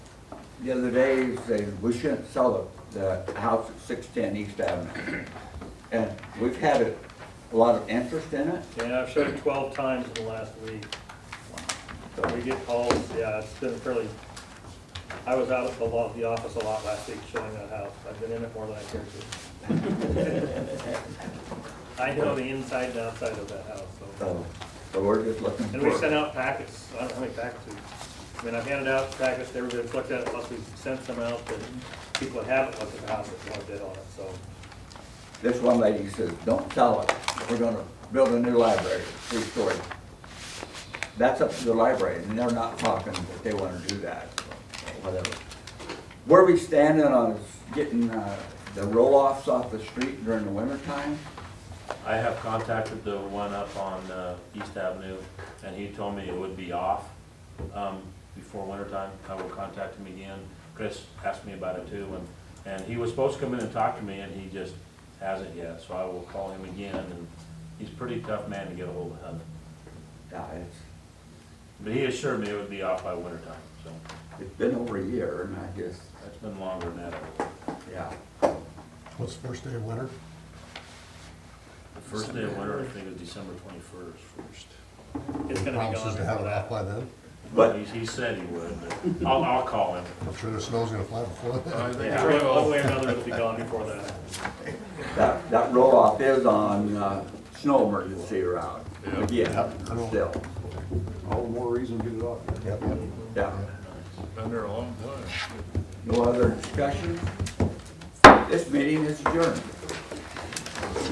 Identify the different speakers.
Speaker 1: the other day, he said, we shouldn't sell the, the house at six ten East Avenue. And we've had a, a lot of interest in it,
Speaker 2: Yeah, I've showed it twelve times in the last week.
Speaker 1: so
Speaker 2: We
Speaker 1: we-
Speaker 2: get calls, yeah, it's been fairly, I was out at the law, the office a lot last week showing that house. I've been in it more than I care to. I know the inside and outside of that house, so.
Speaker 3: Oh.
Speaker 1: so, so we're just looking
Speaker 2: And we sent
Speaker 1: for,
Speaker 2: out packets, I don't know how many packets we, I mean, I've handed out packets to everybody that's looked at it, plus we've sent them out to people that haven't looked at the house that want to bid on it, so.
Speaker 1: this one lady says, don't sell it, we're gonna build a new library, three story. That's up to the library, and they're not talking that they wanna do that, so, whatever. Where we standing on is getting, uh, the roll-offs off the street during the winter time?
Speaker 4: I have contacted the one up on uh, East Avenue, and he told me it would be off um, before wintertime. I will contact him again. Chris asked me about it too, and, and he was supposed to come in and talk to me, and he just hasn't yet. So I will call him again, and he's a pretty tough man to get a hold of.
Speaker 1: Yeah, uh, it's,
Speaker 4: But he assured me it would be off by wintertime, so
Speaker 1: It's been over a year, and I guess,
Speaker 4: that's been longer than that.
Speaker 1: yeah,
Speaker 3: What's the first day of winter?
Speaker 4: The first day of winter, I think, is December twenty-first.
Speaker 2: It's gonna be gone
Speaker 3: Promises to have
Speaker 2: before
Speaker 3: it
Speaker 2: that.
Speaker 3: off by then?
Speaker 1: But-
Speaker 4: He, he said he would, but I'll, I'll call him.
Speaker 3: I'm sure the snow's gonna fly before then.
Speaker 2: Yeah, One way or another, it'll be gone before that.
Speaker 1: that, that roll-off is on, uh, snow emergency route, again,
Speaker 3: Yep.
Speaker 1: still,
Speaker 5: All the more reason to get it off.
Speaker 3: Yep.
Speaker 1: yeah.
Speaker 5: Been there a long time.
Speaker 1: No other discussion? This meeting is adjourned.